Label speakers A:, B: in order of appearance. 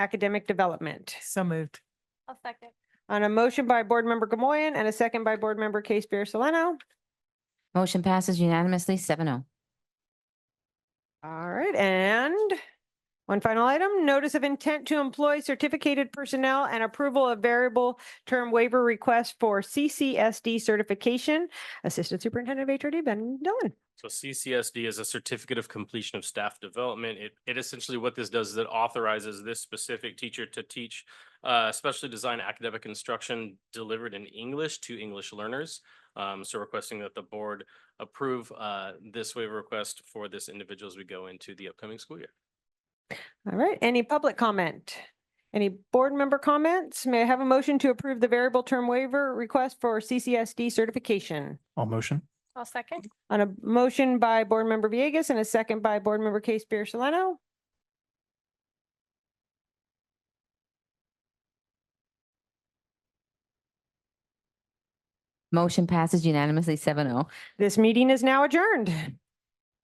A: academic development.
B: So moved.
C: I'll second.
A: On a motion by Board Member Gamoyen and a second by Board Member Case Beer Soleno.
D: Motion passes unanimously, seven oh.
A: All right, and one final item, notice of intent to employ certificated personnel and approval of variable term waiver request for CCSD certification, Assistant Superintendent of HRD Ben Dillon.
E: So CCSD is a certificate of completion of staff development. It, it essentially what this does is it authorizes this specific teacher to teach uh, specially designed academic instruction delivered in English to English learners. Um, so requesting that the board approve uh, this waiver request for this individual as we go into the upcoming school year.
A: All right, any public comment? Any board member comments? May I have a motion to approve the variable term waiver request for CCSD certification?
F: All motion?
C: I'll second.
A: On a motion by Board Member Villegas and a second by Board Member Case Beer Soleno.
D: Motion passes unanimously, seven oh. oh.
A: This meeting is now adjourned.